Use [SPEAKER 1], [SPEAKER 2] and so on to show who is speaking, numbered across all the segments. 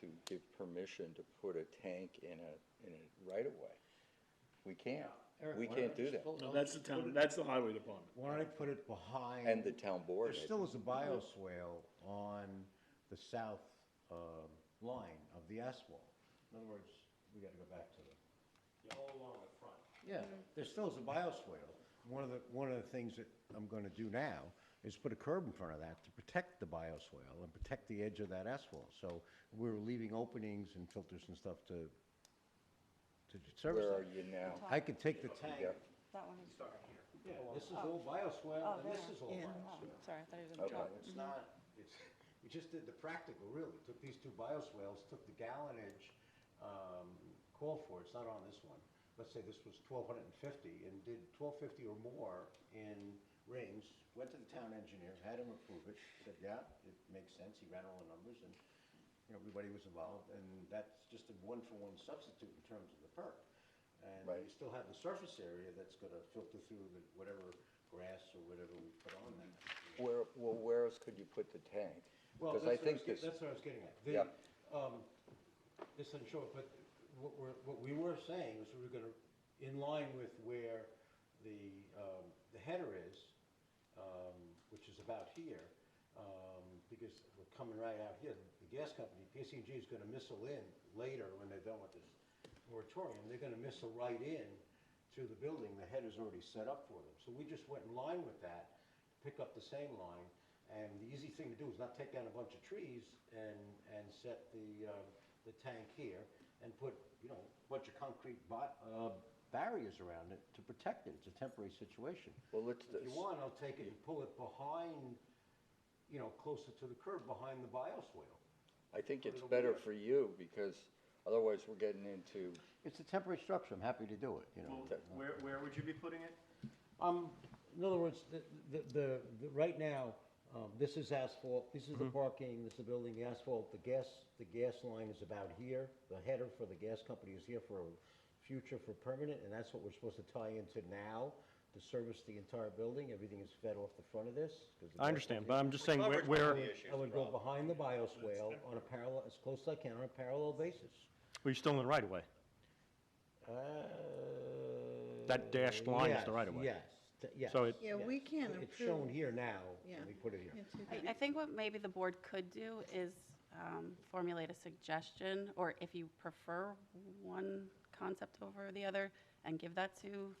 [SPEAKER 1] to give permission to put a tank in a, in a right-of-way. We can't,
[SPEAKER 2] Eric,
[SPEAKER 1] we
[SPEAKER 2] why
[SPEAKER 1] can't
[SPEAKER 2] don't
[SPEAKER 1] do
[SPEAKER 2] you
[SPEAKER 1] that,
[SPEAKER 2] pull-
[SPEAKER 3] No, that's the town, that's the highway department.
[SPEAKER 4] Why don't I put it behind?
[SPEAKER 1] and the town board.
[SPEAKER 4] There
[SPEAKER 1] I
[SPEAKER 4] still
[SPEAKER 1] think.
[SPEAKER 4] is a bioswale on the south um, line of the asphalt. In other words, we gotta go back to the,
[SPEAKER 5] all along the front.
[SPEAKER 4] yeah, there still is a bioswale. One of the, one of the things that I'm gonna do now is put a curb in front of that to protect the bioswale and protect the edge of that asphalt. So we're leaving openings and filters and stuff to, to service
[SPEAKER 1] Where are
[SPEAKER 4] that.
[SPEAKER 1] you now?
[SPEAKER 4] I could take the tank,
[SPEAKER 1] Yeah.
[SPEAKER 6] That one is,
[SPEAKER 4] yeah, this is all bioswale
[SPEAKER 6] oh,
[SPEAKER 4] and
[SPEAKER 6] there.
[SPEAKER 4] this is all
[SPEAKER 6] Yeah.
[SPEAKER 4] bioswale.
[SPEAKER 6] Oh, Sorry, I thought he was
[SPEAKER 1] Okay.
[SPEAKER 6] in trouble.
[SPEAKER 4] It's not, it's, we just did the practical, really, took these two bioswales, took the gallonage, um, call for, it. it's not on this one. Let's say this was twelve hundred and fifty, and did twelve fifty or more in rings, went to the town engineer, had him approve it, said, yeah, it makes sense, he ran all the numbers, and, you know, everybody was involved, and that's just a one-for-one substitute in terms of the perk. And
[SPEAKER 1] Right.
[SPEAKER 4] you still have the surface area that's gonna filter through the, whatever grass or whatever we put on that.
[SPEAKER 1] Where, well, where else could you put the tank?
[SPEAKER 4] Well,
[SPEAKER 1] Because I
[SPEAKER 4] that's what I was
[SPEAKER 1] think
[SPEAKER 4] get-
[SPEAKER 1] this,
[SPEAKER 4] that's what I was getting at. The,
[SPEAKER 1] Yeah.
[SPEAKER 4] um, This doesn't show it, but what we're, what we were saying is we were gonna, in line with where the, um, the header is, um, which is about here, um, because we're coming right out here, the gas company, PCG is gonna missile in later when they're done with this moratorium, they're gonna missile right in to the building, the header's already set up for them. So we just went in line with that, pick up the same line, and the easy thing to do is not take down a bunch of trees and, and set the, um, the tank here and put, you know, a bunch of concrete bo- uh, barriers around it to protect it. It's a temporary situation.
[SPEAKER 1] well, let's,
[SPEAKER 4] If you want, I'll take it and pull it behind, you know, closer to the curb, behind the bioswale.
[SPEAKER 1] I think it's
[SPEAKER 4] over
[SPEAKER 1] better
[SPEAKER 4] there.
[SPEAKER 1] for you, because otherwise we're getting into,
[SPEAKER 4] It's a temporary structure. I'm happy to do it, you know.
[SPEAKER 5] Where, where would you be putting it?
[SPEAKER 4] Um, in other words, the, the- the, the, right now, um, this is asphalt, this is the
[SPEAKER 7] Mm-hmm.
[SPEAKER 4] parking, this is the building, the asphalt, the gas, the gas line is about here. The header for the gas company is here for future for permanent, and that's what we're supposed to tie into now to service the entire building. Everything is fed off the front of this. 'cause the
[SPEAKER 7] I
[SPEAKER 4] gas
[SPEAKER 7] understand, but
[SPEAKER 4] company-
[SPEAKER 7] I'm just saying where,
[SPEAKER 5] Coverage
[SPEAKER 7] where,
[SPEAKER 5] policy issue.
[SPEAKER 4] I would go behind the bioswale on a parallel, as close as I can, on a parallel basis.
[SPEAKER 7] we're still in the right of way. That dashed line is the
[SPEAKER 4] Uh, yes,
[SPEAKER 7] right-of-way.
[SPEAKER 4] Yes, t- yes.
[SPEAKER 7] So it-
[SPEAKER 8] Yeah, we
[SPEAKER 4] yes.
[SPEAKER 8] can't
[SPEAKER 4] It's shown
[SPEAKER 8] approve.
[SPEAKER 4] here now,
[SPEAKER 8] Yeah.
[SPEAKER 4] and we put it here.
[SPEAKER 8] into
[SPEAKER 6] I,
[SPEAKER 8] that.
[SPEAKER 6] I think what maybe the board could do is um, formulate a suggestion, or if you prefer one concept over the other, and give that to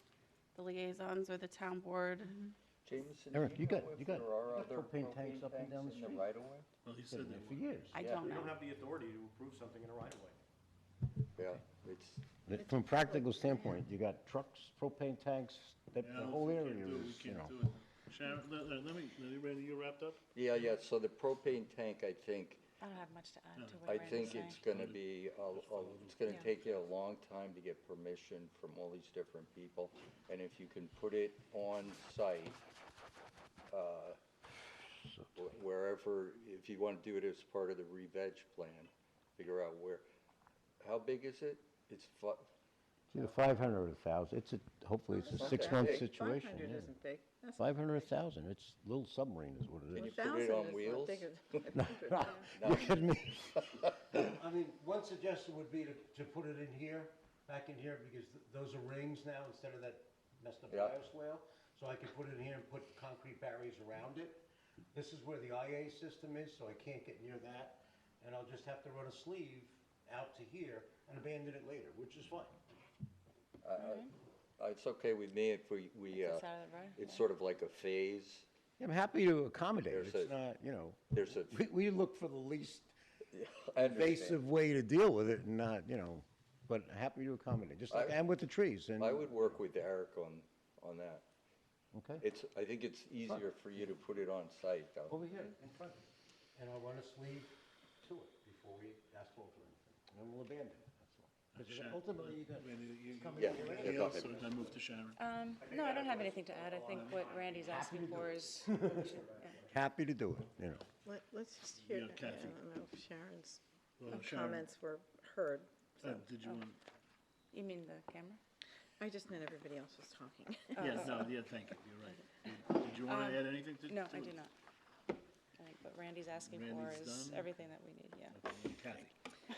[SPEAKER 6] the liaisons or the town board.
[SPEAKER 1] Mm-hmm. Jameson, do
[SPEAKER 4] Eric,
[SPEAKER 1] you
[SPEAKER 4] you
[SPEAKER 1] know
[SPEAKER 4] got- you
[SPEAKER 1] if
[SPEAKER 4] got-
[SPEAKER 1] there are
[SPEAKER 4] you got
[SPEAKER 1] other propane
[SPEAKER 4] propane tanks
[SPEAKER 1] tanks
[SPEAKER 4] up and down the
[SPEAKER 1] in the
[SPEAKER 4] street.
[SPEAKER 1] right of way?
[SPEAKER 3] Well, he
[SPEAKER 4] Been
[SPEAKER 3] said
[SPEAKER 4] there
[SPEAKER 3] that
[SPEAKER 4] for years.
[SPEAKER 6] I
[SPEAKER 1] Yeah,
[SPEAKER 6] don't
[SPEAKER 5] We
[SPEAKER 6] know.
[SPEAKER 5] don't have the authority to approve something in a right of way.
[SPEAKER 1] Yeah, it's,
[SPEAKER 4] That From a practical standpoint, you got trucks, propane tanks, that the whole area is, you know.
[SPEAKER 3] Sharon, let, let- let me, let me- Randy, you wrapped up?
[SPEAKER 1] yeah, yeah, so the propane tank, I think,
[SPEAKER 6] I don't have much to add to what
[SPEAKER 1] I
[SPEAKER 6] Randy's saying.
[SPEAKER 1] think it's gonna be, a- a- it's gonna take you a long time to get permission from all these different people. And if you can put it on site, uh, wh- wherever, if you wanna do it as part of the re-veg plan, figure out where, how big is it? It's fu- uh,
[SPEAKER 4] It's either five hundred or a thousand, it's a, hopefully it's a
[SPEAKER 1] Okay.
[SPEAKER 4] six-month
[SPEAKER 1] Big.
[SPEAKER 8] Five
[SPEAKER 4] situation,
[SPEAKER 8] hundred isn't big. That's
[SPEAKER 4] Five hundred, a thousand, it's, little submarine is what
[SPEAKER 1] Can
[SPEAKER 4] it
[SPEAKER 1] you
[SPEAKER 4] is.
[SPEAKER 1] put it on
[SPEAKER 8] 1,000 is not
[SPEAKER 1] wheels?
[SPEAKER 8] bigger than 500, yeah.
[SPEAKER 4] Look at me. I mean, one suggestion would be to, to put it in here, back in here, because th- those are rings now instead of that messed up
[SPEAKER 1] Yeah.
[SPEAKER 4] bioswale. So I could put it in here and put concrete barriers around it. This is where the IA system is, so I can't get near that. And I'll just have to run a sleeve out to here and abandon it later, which is fine.
[SPEAKER 1] I- I- It's okay with me if we, we, uh,
[SPEAKER 6] It's out of the right of
[SPEAKER 1] it's
[SPEAKER 6] way.
[SPEAKER 1] sort of like a phase,
[SPEAKER 4] I'm happy to accommodate,
[SPEAKER 1] There's It's a-
[SPEAKER 4] not, you know,
[SPEAKER 1] there's a.
[SPEAKER 4] we, we look for the least
[SPEAKER 1] I understand.
[SPEAKER 4] invasive way to deal with it and not, you know, but happy to accommodate, just like,
[SPEAKER 1] I-
[SPEAKER 4] and with the trees and,
[SPEAKER 1] I would work with Eric on, on that.
[SPEAKER 4] okay?
[SPEAKER 1] It's, I think it's easier for you to put it on site, though.
[SPEAKER 4] Over here, in front. And I want a sleeve to it before we asphalt or anything. And then we'll abandon it, that's all. Because
[SPEAKER 3] Sharon,
[SPEAKER 4] ultimately, you got,
[SPEAKER 3] Randy, you- you-
[SPEAKER 1] Yeah,
[SPEAKER 3] you-
[SPEAKER 1] yeah,
[SPEAKER 3] you
[SPEAKER 1] go
[SPEAKER 3] also-
[SPEAKER 1] ahead.
[SPEAKER 3] I moved to Sharon.
[SPEAKER 9] Um, No, I don't have anything to add. I think what Randy's asking for is,
[SPEAKER 4] happy to do it, you know.
[SPEAKER 8] Let, let's just hear,
[SPEAKER 3] Yeah,
[SPEAKER 8] that. I
[SPEAKER 3] Kathy.
[SPEAKER 8] don't know if Sharon's
[SPEAKER 3] Well, Sharon,
[SPEAKER 8] comments were heard.
[SPEAKER 4] Oh.
[SPEAKER 3] uh, Did you want,
[SPEAKER 9] you mean the camera?
[SPEAKER 8] I just meant everybody else was talking.
[SPEAKER 3] yeah, no, yeah, thank you, you're right. Did you want
[SPEAKER 4] Um,
[SPEAKER 3] to add anything to?
[SPEAKER 9] No,
[SPEAKER 3] to
[SPEAKER 9] I do
[SPEAKER 3] it?
[SPEAKER 9] not. I think what Randy's asking for
[SPEAKER 3] Randy's
[SPEAKER 9] is
[SPEAKER 3] done?
[SPEAKER 9] everything that we need, yeah.
[SPEAKER 3] Okay, Kathy,